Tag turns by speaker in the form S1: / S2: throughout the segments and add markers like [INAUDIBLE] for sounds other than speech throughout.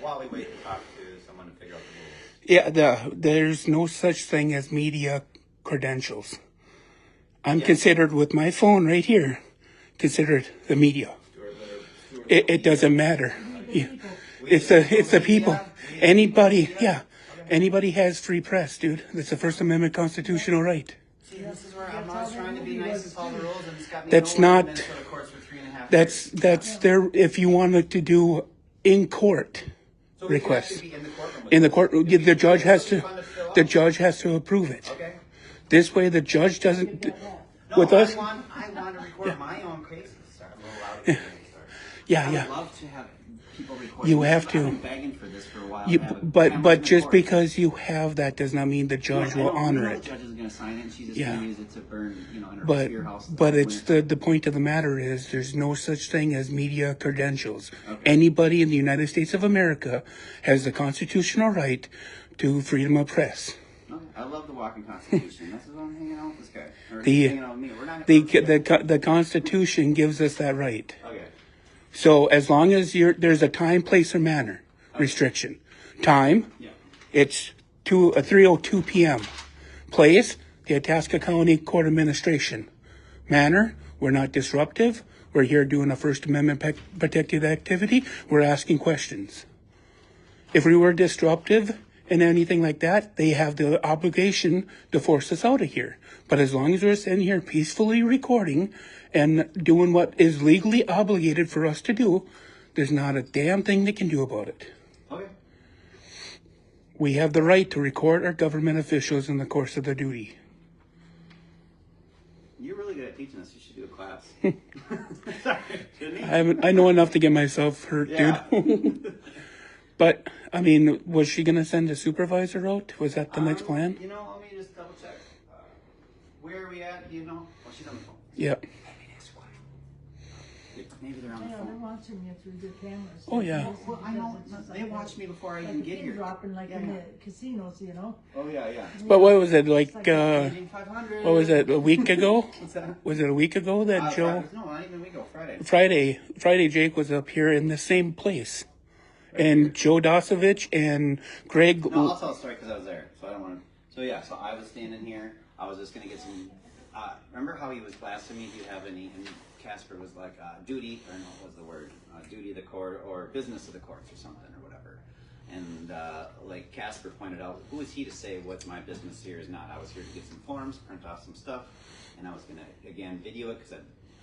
S1: while we wait to talk to someone to figure out the rules.
S2: Yeah, the, there's no such thing as media credentials. I'm considered with my phone right here, considered the media. It, it doesn't matter. Yeah. It's the it's the people. Anybody, yeah, anybody has free press, dude. That's the First Amendment constitutional right.
S1: See, this is where I'm always trying to be nice and follow the rules, and it's got me
S2: That's
S1: nowhere in
S2: not-
S1: Minnesota courts for three and a half
S2: That's
S1: years.
S2: that's their if you wanted to do in court
S1: So we could
S2: request
S1: actually be in the courtroom with
S2: in the
S1: them.
S2: court.
S1: It'd be
S2: The judge has to
S1: fun fill
S2: the
S1: out.
S2: judge has to approve it.
S1: Okay.
S2: This way, the judge doesn't.
S1: No,
S2: With
S1: I
S2: us,
S1: want, I want to record my own crazy stuff. I'm a little loud. Yeah.
S2: yeah, Uh,
S1: I
S2: yeah.
S1: would love to have people record.
S2: You
S1: me.
S2: have
S1: I've
S2: to.
S1: been begging for this for a while.
S2: You,
S1: to have a
S2: but
S1: camera
S2: but
S1: in
S2: just
S1: court.
S2: because you have that does not mean the
S1: I
S2: judge will
S1: don't
S2: honor
S1: know
S2: it.
S1: The judge is going to sign it. and She's just
S2: Yeah.
S1: going to use it to burn, you know, in her
S2: But
S1: your house.
S2: but
S1: in
S2: it's
S1: winter.
S2: the the point of the matter is there's no such thing as media credentials.
S1: Okay.
S2: Anybody in the United States of America has the constitutional right to freedom of press.
S1: Okay, I love the walking Constitution. this is why I'm hanging out with this guy. Or
S2: The-
S1: he's hanging out with me. We're not.
S2: The
S1: we're-
S2: the co- the Constitution gives us that right.
S1: okay.
S2: So as long as you're there's a time, place, or manner restriction. Time,
S1: Yeah.
S2: it's two uh, 3:02 p.m. Place, the Itasca County Court Administration. Manner, we're not disruptive. We're here doing a First Amendment pe- protected activity. We're asking questions. If we were disruptive and anything like that, they have the obligation to force us out of here. But as long as we're sitting here peacefully recording and doing what is legally obligated for us to do, there's not a damn thing they can do about it.
S1: Okay.
S2: We have the right to record our government officials in the course of their duty.
S1: You're really good at teaching us. You should do a
S2: [LAUGHS]
S1: class. Sorry, shouldn't he?
S2: I haven't, I know enough to get myself hurt, [LAUGHS]
S1: Yeah.
S2: dude. But I mean, was she gonna send a supervisor out? Was that the next
S1: Um,
S2: plan?
S1: You know, let me just double check. Uh, where are we at? Do you know? Oh, she's on the phone.
S2: Yeah.
S1: Maybe they're on the
S3: Yeah, they're
S1: phone.
S3: watching you through their cameras.
S2: Oh, yeah.
S1: Well, I know. They watched me before I
S3: Like
S1: even
S3: the
S1: get
S3: pin
S1: here.
S3: dropping like
S1: yeah.
S3: in the casinos, you know?
S1: Oh yeah, yeah.
S2: But what was it like? Uh,
S1: Meeting 500.
S2: what was it? A week ago?
S1: What's that?
S2: Was it a week ago that
S1: Uh,
S2: Joe?
S1: Friday- No, not even a week ago. Friday.
S2: Friday, Friday, Jake was up here in the same place, and Joe Dosovich and Greg.
S1: No, I'll tell a story because I was there, so I don't want to. So yeah, so I was standing here. I was just gonna get some. Uh, remember how he was blasting me? Do you have any? And Casper was like, uh, "Duty," or no, what was the word? Uh, "Duty of the court" or "Business of the courts" or something or whatever. And uh, like Casper pointed out, who is he to say what's my business here is not? I was here to get some forms, print off some stuff, and I was gonna again video it because I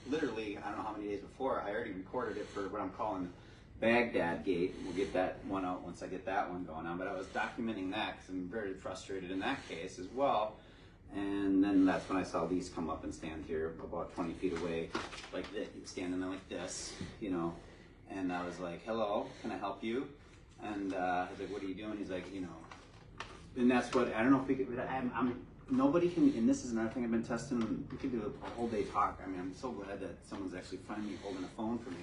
S1: literally I don't know how many days before I already recorded it for what I'm calling Baghdad Gate. We'll get that one out once I get that one going on. But I was documenting that because I'm very frustrated in that case as well. And then that's when I saw these come up and stand here about 20 feet away, like this, standing there like this, you know. And I was like, hello, can I help you? And uh, I was like, what are you doing? He's like, you know, and that's what I don't know if we could. but I'm, I'm nobody can. And this is another thing I've been testing. We could do a whole day talk. I mean, I'm so glad that someone's actually finally holding a phone for me.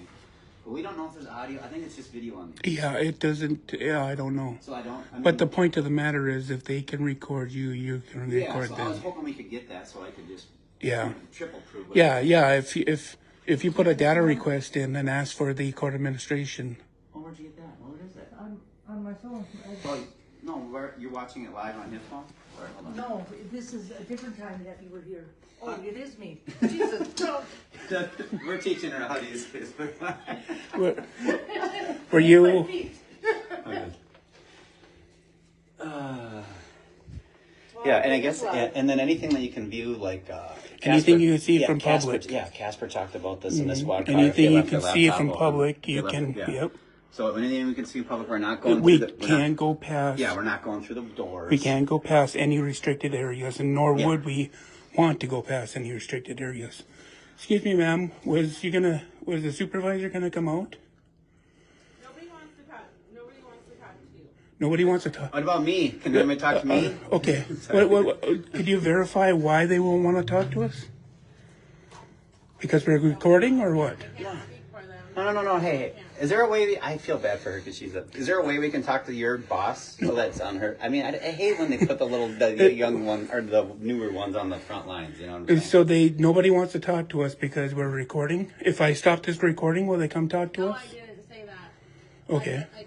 S1: But we don't know if there's audio. I think it's just video on these.
S2: Yeah, it doesn't. Yeah, I don't know.
S1: So I don't. I mean,
S2: But the point of the matter is, if they can record you, you can
S1: yeah.
S2: record
S1: So I was
S2: them.
S1: hoping we could get that so I could just
S2: Yeah.
S1: you know, triple proof. it.
S2: Yeah, yeah. If you- if if you put a data request in and ask for the court administration,
S1: Oh, where'd you get that? What is it?
S3: On, on my phone. I-
S1: Oh, no. Where you're watching it live on his phone? Or, hold on. [LAUGHS]
S3: No, this is a different time that you were here. Oh, it is me. [LAUGHS] Jesus, no.
S1: We're teaching her how to use Facebook. [LAUGHS] Live.
S2: were, were you?
S1: Oh, Yeah, and I guess, and, and then anything that you can view, like uh,
S2: Anything
S1: Casper-
S2: you see from
S1: Casper-
S2: public. Mm-hmm.
S1: Yeah, Casper talked about this in this water.
S2: Anything you can see from public, you can. Yep.
S1: So anything we can see in public, we're not going.
S2: We
S1: through the, we're
S2: can
S1: Not,
S2: go past.
S1: yeah, we're not going through the doors.
S2: We can't go past any restricted areas, and nor
S1: Yeah.
S2: would we want to go past any restricted areas. Excuse me, ma'am. Was you gonna? Was the supervisor gonna come out?
S4: Nobody wants to talk. Nobody wants to talk to you.
S2: Nobody wants to talk.
S1: What about me? Can anybody talk to
S2: Uh,
S1: me?
S2: Okay. what, what, what- could you verify why they won't want to talk to us? Because we're recording, or what?
S4: Can't speak for them.
S1: No, no, no, no. Hey, hey, is there a way? We, I feel bad for her because she's a. Is there a way we can talk to your boss so that's on her? I mean, I, I hate when they put the little, the, the young one or the newer ones on the front lines. You know what I'm saying?
S2: So they nobody wants to talk to us because we're recording. If I stop this recording, will they come talk to
S4: No,
S2: us?
S4: I didn't say that.
S2: Okay.
S4: I-